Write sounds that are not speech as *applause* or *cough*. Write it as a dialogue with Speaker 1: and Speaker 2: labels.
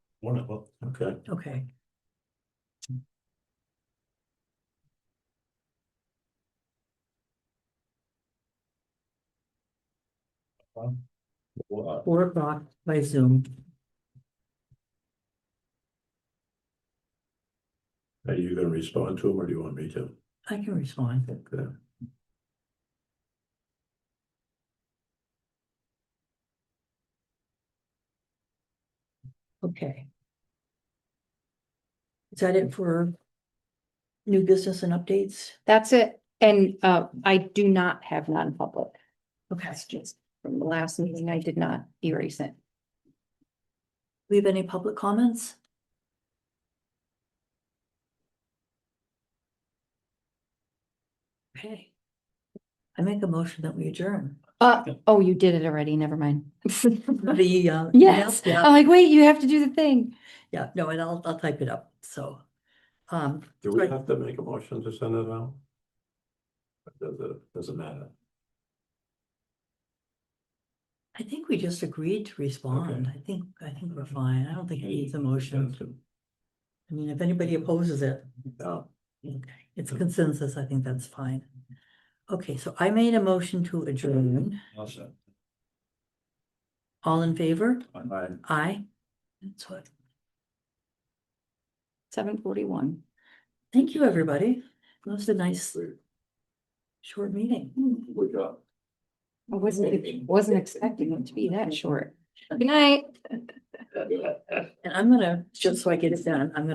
Speaker 1: One of them, okay.
Speaker 2: Okay.
Speaker 1: Wow.
Speaker 2: Four o'clock by Zoom.
Speaker 1: Are you gonna respond to them or do you want me to?
Speaker 2: I can respond.
Speaker 1: Okay.
Speaker 2: Okay. Is that it for new business and updates?
Speaker 3: That's it. And uh, I do not have non-public
Speaker 2: Okay.
Speaker 3: messages. From the last meeting, I did not erase it.
Speaker 2: We have any public comments? Okay. I make a motion that we adjourn.
Speaker 3: Uh, oh, you did it already. Never mind. *laughs*
Speaker 2: The, uh.
Speaker 3: Yes.
Speaker 2: Yeah,
Speaker 3: I'm like, wait, you have to do the thing.
Speaker 2: yeah, no, and I'll, I'll type it up, so. Um,
Speaker 1: Do we
Speaker 2: Right.
Speaker 1: have to make a motion to send it out? Or Does it, doesn't matter?
Speaker 2: I think we just agreed to respond. I think, I think we're fine. I don't think it needs a motion. I mean, if anybody opposes it,
Speaker 1: No,
Speaker 2: okay, it's consensus. I think that's fine. Okay, so I made a motion to adjourn.
Speaker 1: awesome.
Speaker 2: All in favor?
Speaker 1: Bye.
Speaker 2: Aye. That's what.
Speaker 3: Seven forty-one.
Speaker 2: Thank you, everybody. That was a nice, short meeting.
Speaker 1: We got.
Speaker 3: I wasn't, wasn't expecting it to be that short. Good night.
Speaker 2: And I'm gonna, just so I get it done, I'm gonna